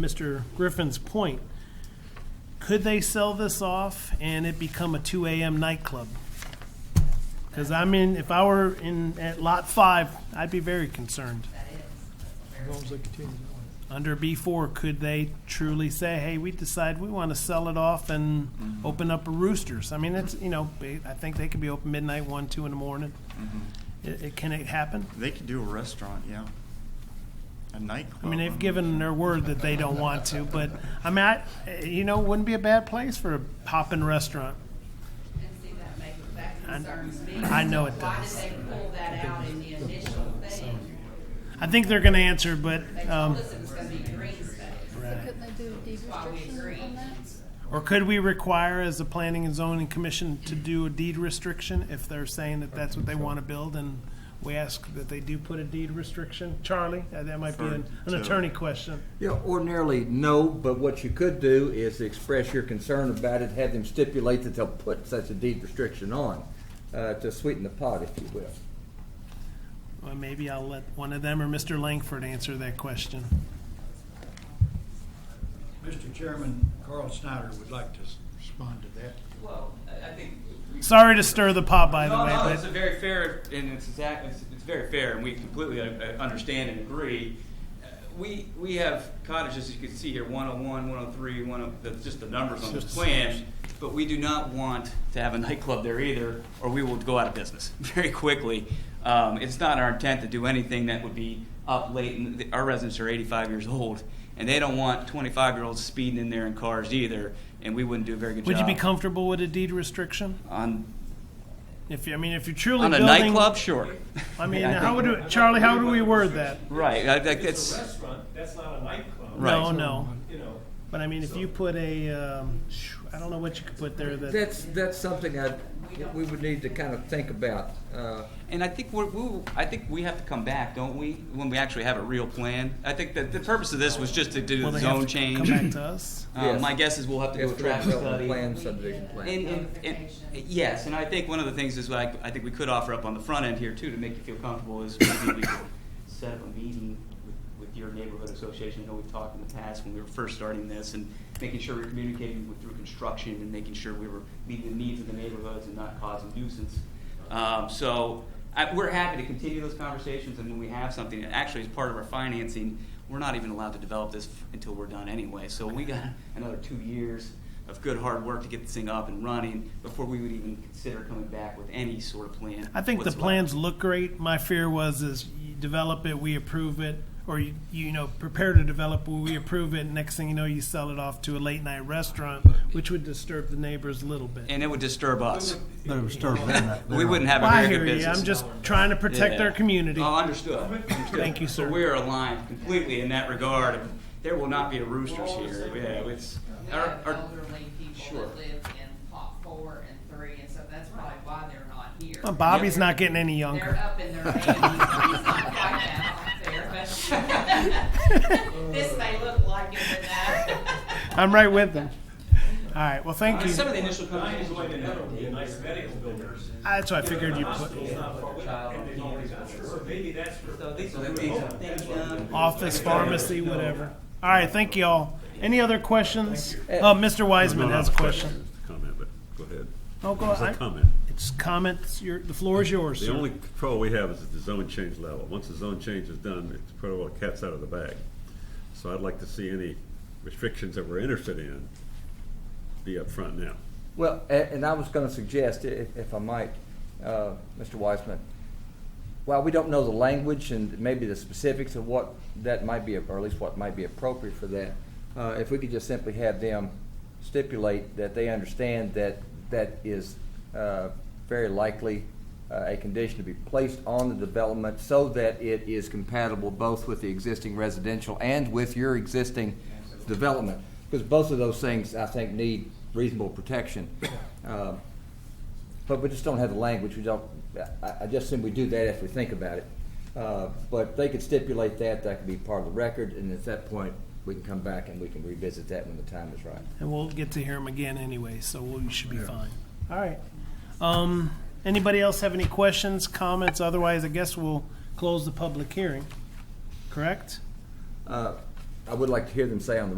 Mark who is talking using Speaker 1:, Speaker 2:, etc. Speaker 1: Mr. Griffin's point, could they sell this off and it become a two AM nightclub? Because I'm in, if I were in, at lot five, I'd be very concerned.
Speaker 2: As long as they continue
Speaker 1: Under B four, could they truly say, hey, we decide we want to sell it off and open up a roosters? I mean, it's, you know, ba- I think they could be open midnight, one, two in the morning. It, it, can it happen?
Speaker 3: They could do a restaurant, yeah. A nightclub.
Speaker 1: I mean, they've given their word that they don't want to, but I mean, I, you know, it wouldn't be a bad place for a poppin' restaurant.
Speaker 4: And see, that makes, that concerns me.
Speaker 1: I know it
Speaker 4: Why did
Speaker 1: does.
Speaker 4: they pull that out in the initial thing?
Speaker 1: I think they're going to answer, but
Speaker 4: They told
Speaker 1: um,
Speaker 4: us it was gonna be green space.
Speaker 5: Couldn't they do a deed
Speaker 4: Why we agree.
Speaker 5: restriction on that?
Speaker 1: or could we require as the Planning and Zoning Commission to do a deed restriction if they're saying that that's what they want to build and we ask that they do put a deed restriction? Charlie, Uh, that might be an, an
Speaker 3: For- to-
Speaker 1: attorney question.
Speaker 6: Yeah, ordinarily, no, but what you could do is express your concern about it, have them stipulate that they'll put such a deed restriction on, uh, to sweeten the pot, if you will.
Speaker 1: Well, maybe I'll let one of them or Mr. Langford answer that question.
Speaker 2: Mr. Chairman, Carl Snyder would like to s- respond to that.
Speaker 7: Well, I I think. we-
Speaker 1: Sorry to stir the pot, by the
Speaker 7: No,
Speaker 1: way,
Speaker 7: no,
Speaker 1: but
Speaker 7: it's a very fair, and it's exact, it's, it's very fair, and we completely uh, uh, understand and agree. Uh, We, we have cottages, as you can see here, 101, 103, one of, that's just the numbers on this plan, but we do not want to have a nightclub there either, or we will go out of business very quickly. Um, it's not our intent to do anything that would be up late, and the- our residents are 85 years old, and they don't want 25-year-olds speeding in there in cars either, and we wouldn't do a very good job.
Speaker 1: would you be comfortable with a deed restriction?
Speaker 7: On
Speaker 1: If you, I mean, if you're truly
Speaker 7: on a
Speaker 1: building,
Speaker 7: nightclub, sure.
Speaker 1: I mean,
Speaker 7: I
Speaker 1: how
Speaker 7: think-
Speaker 1: would we- Charlie? How do we word that?
Speaker 7: Right, I think
Speaker 8: It's a
Speaker 7: that's
Speaker 8: restaurant, that's not a nightclub.
Speaker 7: Right.
Speaker 1: No, no.
Speaker 8: You know,
Speaker 1: But I mean, if you put a, um, I don't know what you could put there that.
Speaker 6: That's, that's something I, we would need to kind of think about, uh,
Speaker 7: and I think we're, we, I think we have to come back, don't we? When we actually have a real plan. I think that the purpose of this was just to do
Speaker 1: Will
Speaker 7: the
Speaker 1: they have to
Speaker 7: zone change.
Speaker 1: Come back to us.
Speaker 7: Uh, my guess is we'll have to do
Speaker 6: as
Speaker 7: a
Speaker 6: for
Speaker 7: traffic
Speaker 6: development
Speaker 7: study.
Speaker 6: plan, subdivision plan.
Speaker 7: And, and, and, yes, and I think one of the things is like, I think we could offer up on the front end here too, to make you feel comfortable, is maybe we could set up a meeting with, with your neighborhood association. I know we've talked in the past when we were first starting this and making sure we're communicating with, through construction and making sure we were meeting the needs of the neighborhoods and not causing nuisance. Um, so, I, we're happy to continue those conversations, and when we have something, and actually as part of our financing, we're not even allowed to develop this f- until we're done anyway. So we got another two years of good hard work to get this thing up and running before we would even consider coming back with any sort of plan.
Speaker 1: I think the
Speaker 7: whatsoever.
Speaker 1: plans look great. My fear was is you develop it, we approve it, or you, you know prepare to develop, we approve it. Next thing you know, you sell it off to a late night restaurant, which would disturb the neighbors a little bit.
Speaker 7: and it would disturb us.
Speaker 9: They were starving that.
Speaker 7: We wouldn't have a
Speaker 1: Well, I
Speaker 7: very
Speaker 1: hear
Speaker 7: good
Speaker 1: you.
Speaker 7: business.
Speaker 1: I'm just trying to protect
Speaker 7: Yeah.
Speaker 1: our community.
Speaker 7: Oh, understood. Understood.
Speaker 1: Thank you,
Speaker 7: So
Speaker 1: sir.
Speaker 7: we're aligned completely in that regard. There will not be a roosters here. Yeah, it's
Speaker 4: We
Speaker 7: our,
Speaker 4: have
Speaker 7: our,
Speaker 4: elderly people
Speaker 7: Sure.
Speaker 4: that live in plot four and three, and so that's probably why they're not here.
Speaker 1: Well, Bobby's not getting any
Speaker 4: They're uh,
Speaker 1: younger.
Speaker 4: up in their eighties, so he's not quite that out there, but this may look like it, but that.
Speaker 1: I'm right with them. All right. Well, thank you.
Speaker 7: some of the initial conversations.
Speaker 8: Diane's way in the middle, would be a nice medical building.
Speaker 1: That's what I figured you'd put.
Speaker 8: Hospital's not far away, and there's always- so maybe that's for.
Speaker 1: office, pharmacy, whatever. All right, thank you all. Any other questions? Uh, Mr. Wiseman has a question.
Speaker 10: Comment, but go ahead.
Speaker 1: Oh, go
Speaker 10: It's a
Speaker 1: ahead.
Speaker 10: comment.
Speaker 1: It's comments, your, the floor is yours,
Speaker 10: The
Speaker 1: sir.
Speaker 10: only control we have is at the zone change level. Once the zone change is done, it's put all the cats out of the bag. So I'd like to see any restrictions that we're interested in be up front now.
Speaker 6: Well, a- and I was going to suggest, i- if if I might, uh, Mr. Weissman, while we don't know the language and maybe the specifics of what that might be, or at least what might be appropriate for that, uh, if we could just simply have them stipulate that they understand that that is uh, very likely uh, a condition to be placed on the development so that it is compatible both with the existing residential and with your existing development. Because both of those things, I think, need reasonable protection. Uh, But we just don't have the language, we don't, I, I just assume we do that if we think about it. Uh, But they could stipulate that, that could be part of the record, and at that point, we can come back and we can revisit that when the time is right.
Speaker 1: And we'll get to hear him again anyway, so we should be fine. All right. Um, anybody else have any questions, comments? Otherwise, I guess we'll close the public hearing, correct?
Speaker 6: Uh, I would like to hear them say on the